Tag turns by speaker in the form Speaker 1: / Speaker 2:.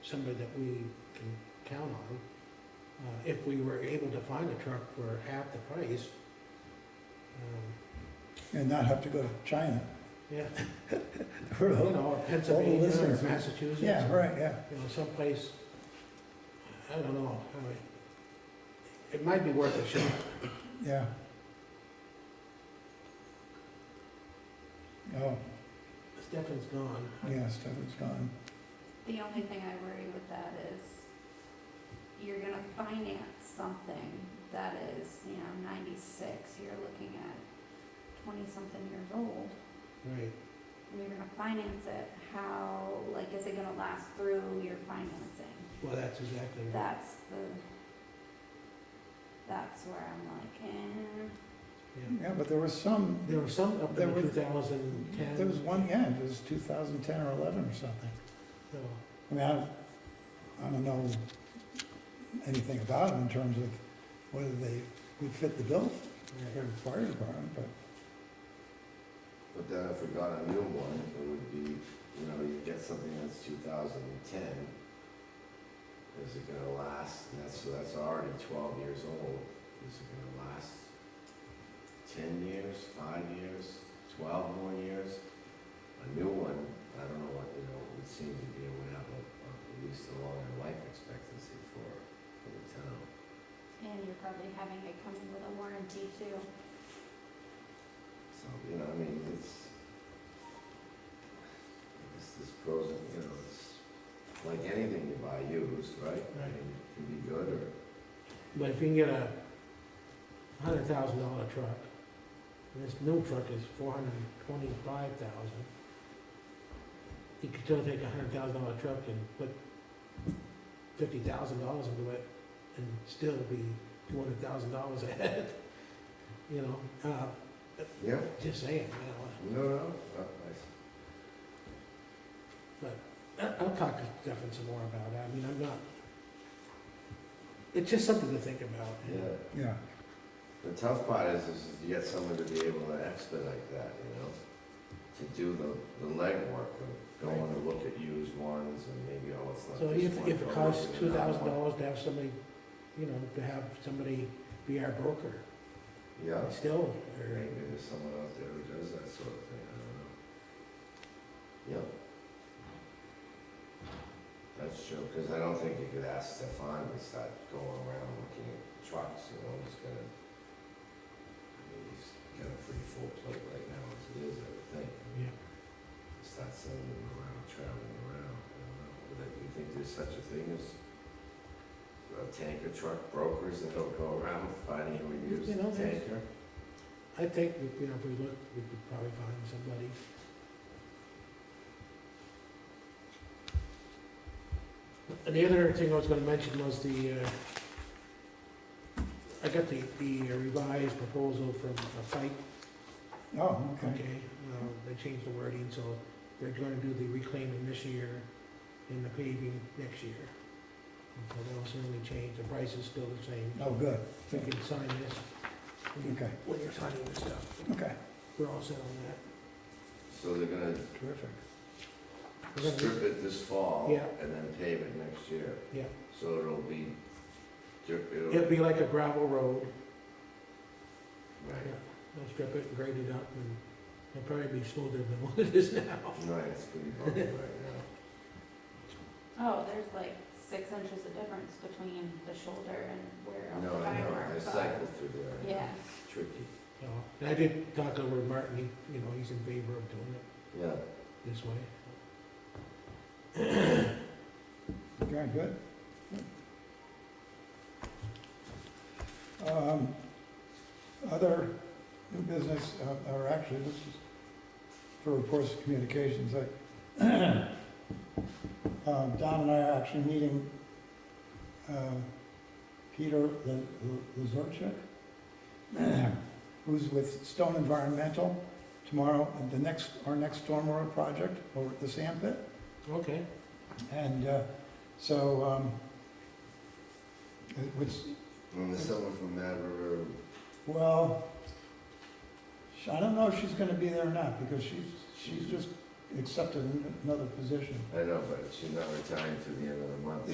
Speaker 1: somebody that we can count on. Uh, if we were able to find a truck for half the price, um,
Speaker 2: and not have to go to China.
Speaker 1: yeah,
Speaker 2: Where
Speaker 1: you
Speaker 2: the-
Speaker 1: know, or Pennsylvania or
Speaker 2: listeners.
Speaker 1: Massachusetts.
Speaker 2: Yeah,
Speaker 1: or,
Speaker 2: right, yeah.
Speaker 1: You know, someplace, I don't know, how it, it might be worth a shot.
Speaker 2: Yeah. Oh,
Speaker 1: Stefan's gone.
Speaker 2: yeah, Stefan's gone.
Speaker 3: The only thing I worry with that is you're gonna finance something that is, you know, ninety-six, you're looking at twenty-something years old.
Speaker 1: Right,
Speaker 3: And you're gonna finance it, how, like, is it gonna last through your financing?
Speaker 1: well, that's exactly right.
Speaker 3: That's the, that's where I'm like, eh.
Speaker 1: Yeah.
Speaker 2: Yeah, but there was some,
Speaker 1: There were some up
Speaker 2: There
Speaker 1: in
Speaker 2: was-
Speaker 1: two thousand and ten.
Speaker 2: there was one, yeah, it was 2010 or 11 or something.
Speaker 1: So,
Speaker 2: I mean, I, I don't know anything about them in terms of whether they would fit the bill
Speaker 1: right.
Speaker 2: for the fire department, but
Speaker 4: But then if we got a new one, it would be, you know, you get something that's two thousand and ten. Is it gonna last, and that's, so that's already twelve years old, is it gonna last ten years, five years, twelve more years? A new one, I don't know what, you know, would seem to be, it would have a, a- at least a longer life expectancy for, for the town.
Speaker 3: And you're probably having it come with a warranty too.
Speaker 4: So, you know, I mean, it's, it's this pros and, you know, it's like anything you buy used, right? I mean, it can be good or,
Speaker 1: But if you can get a hundred thousand dollar truck, and this new truck is four hundred and twenty-five thousand, you could still take a hundred thousand dollar truck and put fifty thousand dollars into it and still be two hundred thousand dollars ahead. You know, uh,
Speaker 4: yeah,
Speaker 1: just saying, you
Speaker 4: no, no, uh, I-
Speaker 1: know, I- I'll talk to Stefan some more about it, I mean, I'm not, it's just something to think about.
Speaker 4: yeah.
Speaker 2: yeah.
Speaker 4: The tough part is, is to get someone to be able to expedite that, you know? To do the, the legwork of going to look at used ones and maybe, oh, it's not
Speaker 1: So
Speaker 4: this
Speaker 1: if,
Speaker 4: one,
Speaker 1: if it
Speaker 4: but
Speaker 1: costs
Speaker 4: it's
Speaker 1: two
Speaker 4: another
Speaker 1: thousand
Speaker 4: one.
Speaker 1: dollars to have somebody, you know, to have somebody be our broker,
Speaker 4: Yeah,
Speaker 1: still, or,
Speaker 4: maybe there's someone out there who does that sort of thing, I don't know. Yep. That's true, because I don't think you could ask Stefan to start going around looking at trucks, you know, he's gonna, I mean, he's got a pretty full plate right now, as it is, I would think.
Speaker 1: yeah,
Speaker 4: Start sending them around, traveling around, I don't know, would that, you think there's such a thing as uh, tanker truck brokers that don't go around finding a
Speaker 1: You
Speaker 4: used
Speaker 1: know, there's-
Speaker 4: tanker?
Speaker 1: I think, you know, if we look, we could probably find somebody. And the other thing I was gonna mention was the, uh, I got the, the revised proposal from uh, Pike
Speaker 2: Oh, okay.
Speaker 1: Okay, um, they changed the wording, so they're gonna do the reclaiming this year and the paving next year. And So that'll certainly change, the price is still the same.
Speaker 2: Oh, good.
Speaker 1: We can sign this. when you-
Speaker 2: Okay.
Speaker 1: When you're signing this stuff,
Speaker 2: Okay,
Speaker 1: we're all set on that.
Speaker 4: So they're gonna
Speaker 2: terrific.
Speaker 1: We're gonna-
Speaker 4: strip it this fall
Speaker 1: Yeah.
Speaker 4: and then pave it next year.
Speaker 1: Yeah.
Speaker 4: So it'll be, it'll,
Speaker 1: It'd be like a gravel road,
Speaker 4: right,
Speaker 1: they'll strip it, grade it up, and it'll probably be smoother than what it is now.
Speaker 4: right, it's pretty bumpy right now.
Speaker 3: Oh, there's like six inches of difference between the shoulder and where all
Speaker 4: No,
Speaker 3: the
Speaker 4: I know, I
Speaker 3: fireworks are.
Speaker 4: cycled through there.
Speaker 3: Yeah,
Speaker 4: It's tricky,
Speaker 1: So, And I did talk over to Martin, he, you know, he's in favor of doing it
Speaker 4: yeah.
Speaker 1: this way.
Speaker 2: Okay, good. Um, Other new business, uh, or actually, this is for reports of communications. I- Um, Don and I are actually meeting uh, Peter L- L- Lazarchuk, who's with Stone Environmental tomorrow, at the next, our next stormwater project over at the sand pit.
Speaker 1: Okay,
Speaker 2: And uh, so, um, it was,
Speaker 4: And there's someone from Mad River,
Speaker 2: well, sh- I don't know if she's gonna be there or not, because she's, she's just accepted an- another position.
Speaker 4: I know, but she's not retiring to the end of the